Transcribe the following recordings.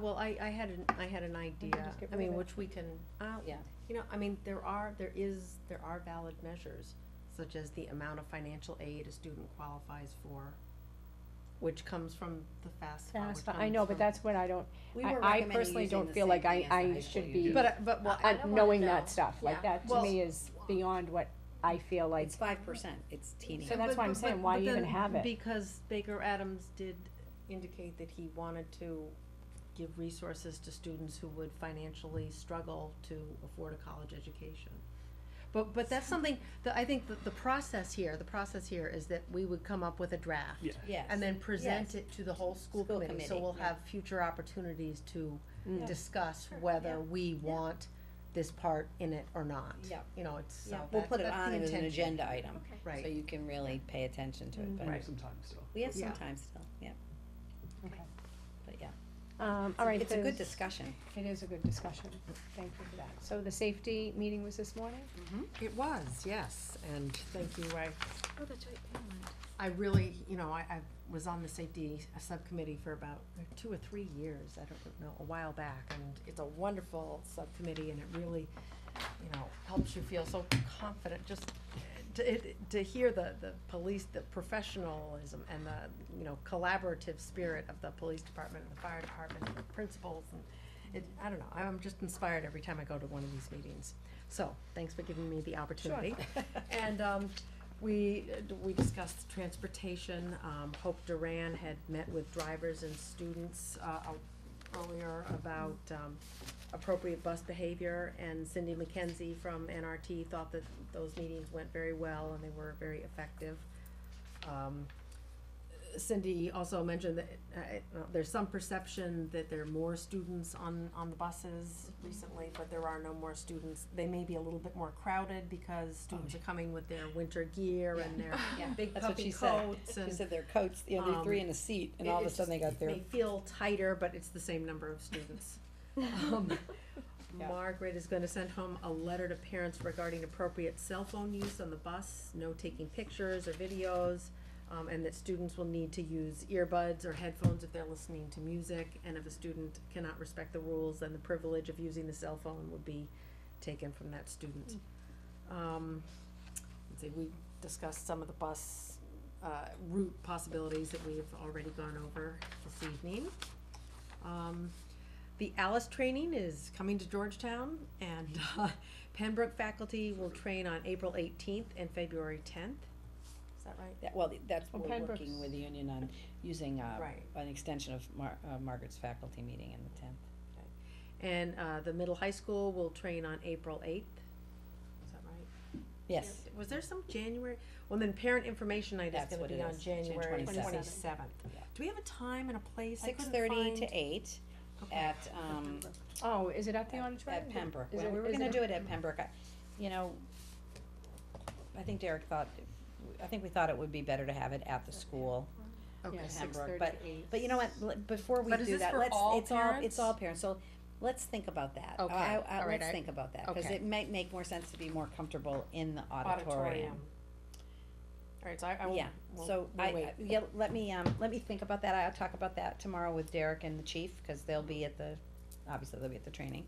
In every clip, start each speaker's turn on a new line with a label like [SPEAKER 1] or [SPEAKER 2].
[SPEAKER 1] Well, I, I had an, I had an idea,
[SPEAKER 2] just get
[SPEAKER 1] I
[SPEAKER 2] rid of
[SPEAKER 1] mean,
[SPEAKER 2] it.
[SPEAKER 1] which we can, uh,
[SPEAKER 2] Yeah.
[SPEAKER 1] you know, I mean, there are, there is, there are valid measures, such as the amount of financial aid a student qualifies for, which comes from the FAFSA, which
[SPEAKER 2] Fast, I know, but
[SPEAKER 1] comes
[SPEAKER 2] that's when I don't,
[SPEAKER 3] We
[SPEAKER 2] I-
[SPEAKER 3] were
[SPEAKER 2] I
[SPEAKER 3] recommending
[SPEAKER 2] personally
[SPEAKER 3] using
[SPEAKER 2] don't
[SPEAKER 3] the
[SPEAKER 2] feel
[SPEAKER 3] same
[SPEAKER 2] like I-
[SPEAKER 3] thing as the
[SPEAKER 2] I
[SPEAKER 3] high
[SPEAKER 2] should
[SPEAKER 3] school
[SPEAKER 2] be-
[SPEAKER 3] union.
[SPEAKER 1] from- But, I- but, well, I
[SPEAKER 2] uh,
[SPEAKER 1] don't wanna
[SPEAKER 2] knowing
[SPEAKER 1] know.
[SPEAKER 2] that stuff, like
[SPEAKER 1] Yeah.
[SPEAKER 2] that to
[SPEAKER 1] Well-
[SPEAKER 2] me is beyond what I feel like,
[SPEAKER 3] It's five percent, it's teeny.
[SPEAKER 2] So that's
[SPEAKER 1] but-
[SPEAKER 2] why I'm
[SPEAKER 1] but-
[SPEAKER 2] saying,
[SPEAKER 1] but-
[SPEAKER 2] why
[SPEAKER 1] but
[SPEAKER 2] even
[SPEAKER 1] then-
[SPEAKER 2] have it?
[SPEAKER 1] Because Baker Adams did indicate that he wanted to give resources to students who would financially struggle to afford a college education. But, but that's something, that I think that the process here, the process here is that we would come up with a draft.
[SPEAKER 4] Yeah.
[SPEAKER 3] Yes.
[SPEAKER 1] And then present
[SPEAKER 3] Yes.
[SPEAKER 1] it to the whole school
[SPEAKER 3] School
[SPEAKER 1] committee, so
[SPEAKER 3] committee,
[SPEAKER 1] we'll
[SPEAKER 3] yeah.
[SPEAKER 1] have future opportunities to
[SPEAKER 2] Mm. Yeah.
[SPEAKER 1] discuss
[SPEAKER 3] Sure,
[SPEAKER 1] whether
[SPEAKER 3] yeah.
[SPEAKER 1] we want this part in it or not.
[SPEAKER 3] Yeah.
[SPEAKER 1] You know, it's, so
[SPEAKER 3] Yeah, we'll
[SPEAKER 1] that-
[SPEAKER 3] put it
[SPEAKER 1] that's the
[SPEAKER 3] on as an
[SPEAKER 1] intention.
[SPEAKER 3] agenda item,
[SPEAKER 1] Right.
[SPEAKER 3] so you can really pay attention to it,
[SPEAKER 2] Mm.
[SPEAKER 4] We
[SPEAKER 3] but
[SPEAKER 4] have some time still.
[SPEAKER 3] we have
[SPEAKER 1] Yeah.
[SPEAKER 3] some time still, yeah,
[SPEAKER 2] okay.
[SPEAKER 3] but yeah.
[SPEAKER 2] Um,
[SPEAKER 3] It's a-
[SPEAKER 2] all right.
[SPEAKER 3] It's a good
[SPEAKER 2] there's-
[SPEAKER 3] discussion.
[SPEAKER 2] It is a good discussion, thank you for that. So the safety meeting was this morning?
[SPEAKER 1] It was, yes, and thank you, I. I really, you know, I, I was on the safety uh, subcommittee for about two or three years, I don't know, a while back, and it's a wonderful subcommittee, and it really, you know, helps you feel so confident, just to, it, to hear the, the police, the professionalism and the, you know, collaborative spirit of the police department and the fire department and the principals, and it, I don't know, I'm just inspired every time I go to one of these meetings. So, thanks for giving me the opportunity. And, um, we, uh, we discussed transportation, um, Hope Duran had met with drivers and students, uh, uh, earlier about, um, appropriate bus behavior, and Cindy McKenzie from NRT thought that those meetings went very well and they were very effective. Um, Cindy also mentioned that, uh, it- uh, there's some perception that there are more students on, on the buses recently, but there are no more students. They may be a little bit more crowded because students are coming with their winter gear and their
[SPEAKER 3] Oh. Yeah,
[SPEAKER 1] big
[SPEAKER 3] that's what
[SPEAKER 1] puffy
[SPEAKER 3] she said.
[SPEAKER 1] coats and.
[SPEAKER 3] She said their coats, you know, they're three
[SPEAKER 1] um,
[SPEAKER 3] in a seat, and
[SPEAKER 1] it-
[SPEAKER 3] all of
[SPEAKER 1] it
[SPEAKER 3] a sudden they
[SPEAKER 1] just-
[SPEAKER 3] got their,
[SPEAKER 1] They feel tighter, but it's the same number of students. Um,
[SPEAKER 3] Yeah.
[SPEAKER 1] Margaret is gonna send home a letter to parents regarding appropriate cell phone use on the bus, no taking pictures or videos, um, and that students will need to use earbuds or headphones if they're listening to music, and if a student cannot respect the rules, then the privilege of using the cell phone would be taken from that student.
[SPEAKER 3] Mm.
[SPEAKER 1] Um, let's see, we discussed some of the bus, uh, route possibilities that we've already gone over this evening. Um, the Alice training is coming to Georgetown and, uh, Pembroke faculty will train on April eighteenth and February tenth. Is that right?
[SPEAKER 3] that- well, that's,
[SPEAKER 2] Well,
[SPEAKER 3] we're
[SPEAKER 2] Pembroke's-
[SPEAKER 3] working with the union on using, uh,
[SPEAKER 1] Right.
[SPEAKER 3] an extension of Mar- uh, Margaret's faculty meeting in the tenth.
[SPEAKER 1] And, uh, the middle high school will train on April eighth. Is that right?
[SPEAKER 3] Yes,
[SPEAKER 1] Was there some January, well, then parent information night is
[SPEAKER 3] That's
[SPEAKER 1] gonna
[SPEAKER 3] what
[SPEAKER 1] be
[SPEAKER 3] it
[SPEAKER 1] on
[SPEAKER 3] is, June
[SPEAKER 1] January
[SPEAKER 3] 27th.
[SPEAKER 1] twenty-seventh.
[SPEAKER 3] Yeah.
[SPEAKER 1] Do we have a time and a place? I
[SPEAKER 3] six
[SPEAKER 1] couldn't
[SPEAKER 3] thirty to
[SPEAKER 1] find-
[SPEAKER 3] eight
[SPEAKER 1] Okay.
[SPEAKER 3] at, um,
[SPEAKER 2] Oh, is it at the
[SPEAKER 3] at-
[SPEAKER 2] auditorium?
[SPEAKER 3] At Pembroke,
[SPEAKER 2] Is
[SPEAKER 3] well,
[SPEAKER 2] it-
[SPEAKER 3] we were
[SPEAKER 2] is
[SPEAKER 3] gonna
[SPEAKER 2] it-
[SPEAKER 3] do it at Pembroke, I, you know, I think Derek thought, I think we thought it would be better to have it at the school,
[SPEAKER 1] Okay.
[SPEAKER 2] Yeah,
[SPEAKER 3] at
[SPEAKER 2] six
[SPEAKER 3] Pembroke,
[SPEAKER 2] thirty
[SPEAKER 3] but,
[SPEAKER 2] to eight.
[SPEAKER 3] but you know what, l- before we
[SPEAKER 1] But is
[SPEAKER 3] do
[SPEAKER 1] this
[SPEAKER 3] that,
[SPEAKER 1] for
[SPEAKER 3] let's,
[SPEAKER 1] all
[SPEAKER 3] it's all, it's
[SPEAKER 1] parents?
[SPEAKER 3] all parents, so let's think about that.
[SPEAKER 1] Okay,
[SPEAKER 3] I- I-
[SPEAKER 1] all right,
[SPEAKER 3] let's
[SPEAKER 1] I-
[SPEAKER 3] think about that, cause
[SPEAKER 1] okay.
[SPEAKER 3] it might make more sense to be more comfortable in the
[SPEAKER 1] Auditorium.
[SPEAKER 3] auditorium.
[SPEAKER 1] Alright, so I, I will.
[SPEAKER 3] Yeah,
[SPEAKER 1] we'll-
[SPEAKER 3] so
[SPEAKER 1] we'll
[SPEAKER 3] I,
[SPEAKER 1] wait.
[SPEAKER 3] I- yeah, let me, um, let me think about that, I'll talk about that tomorrow with Derek and the chief, cause they'll be at the, obviously they'll be at the training.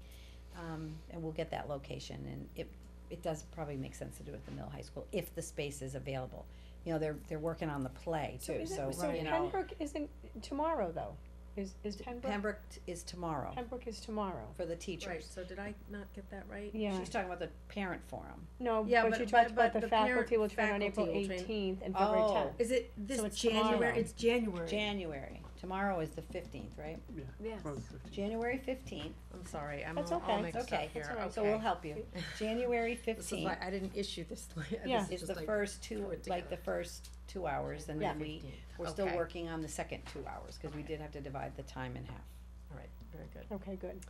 [SPEAKER 3] Um, and we'll get that location, and it, it does probably make sense to do it at the middle high school, if the space is available. You know, they're, they're working on the play too,
[SPEAKER 2] is it-
[SPEAKER 3] so,
[SPEAKER 2] So
[SPEAKER 3] you know,
[SPEAKER 2] Pembroke isn't, tomorrow though, is, is Pembroke,
[SPEAKER 3] Pembroke t- is tomorrow
[SPEAKER 2] Pembroke is tomorrow.
[SPEAKER 3] for the
[SPEAKER 1] Right,
[SPEAKER 3] teachers.
[SPEAKER 1] so did I not get that right?
[SPEAKER 2] Yeah,
[SPEAKER 3] She's talking about the parent forum.
[SPEAKER 2] no,
[SPEAKER 1] Yeah,
[SPEAKER 2] but
[SPEAKER 1] but-
[SPEAKER 2] you
[SPEAKER 1] but-
[SPEAKER 2] talked about
[SPEAKER 1] but
[SPEAKER 2] the
[SPEAKER 1] the parent
[SPEAKER 2] faculty will train on
[SPEAKER 1] faculty
[SPEAKER 2] April
[SPEAKER 1] will train-
[SPEAKER 2] eighteenth and February
[SPEAKER 3] Oh.
[SPEAKER 2] tenth.
[SPEAKER 1] Is it this
[SPEAKER 2] So it's
[SPEAKER 1] January,
[SPEAKER 2] tomorrow.
[SPEAKER 1] it's January?
[SPEAKER 3] January, tomorrow is the fifteenth, right?
[SPEAKER 4] Yeah.
[SPEAKER 5] Yes.
[SPEAKER 4] Probably 15.
[SPEAKER 3] January fifteenth,
[SPEAKER 1] I'm sorry, I'm
[SPEAKER 2] That's
[SPEAKER 1] all, all
[SPEAKER 2] okay.
[SPEAKER 1] mixed up
[SPEAKER 3] okay,
[SPEAKER 1] here, okay.
[SPEAKER 3] so we'll help you. January
[SPEAKER 1] This is
[SPEAKER 3] fifteenth
[SPEAKER 1] why I didn't issue this, like,
[SPEAKER 2] Yeah.
[SPEAKER 1] this is
[SPEAKER 3] is
[SPEAKER 1] just
[SPEAKER 3] the
[SPEAKER 1] like-
[SPEAKER 3] first two,
[SPEAKER 1] throw it
[SPEAKER 3] like the
[SPEAKER 1] together.
[SPEAKER 3] first two hours, and
[SPEAKER 2] Yeah.
[SPEAKER 3] then we, we're still
[SPEAKER 1] Okay.
[SPEAKER 3] working on the second two hours, cause we
[SPEAKER 1] Okay.
[SPEAKER 3] did have to divide the time in half.
[SPEAKER 1] All right, very good.
[SPEAKER 2] Okay, good.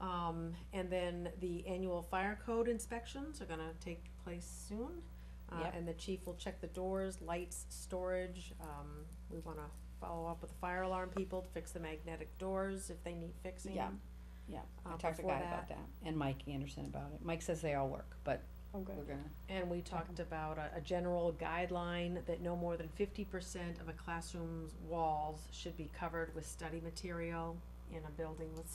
[SPEAKER 1] Um, and then the annual fire code inspections are gonna take place soon. Uh,
[SPEAKER 3] Yep.
[SPEAKER 1] and the chief will check the doors, lights, storage, um, we wanna follow up with the fire alarm people, to fix the magnetic doors if they need fixing.
[SPEAKER 3] Yeah. Yeah,
[SPEAKER 1] Uh,
[SPEAKER 3] I talked to
[SPEAKER 1] before
[SPEAKER 3] Guy about that, and Mike Anderson about it, Mike says they all work, but
[SPEAKER 2] Oh,
[SPEAKER 3] we're
[SPEAKER 2] good.
[SPEAKER 3] gonna,
[SPEAKER 1] And we talked about a, a general guideline that no more than fifty percent of a classroom's walls should be covered with study material. in a building with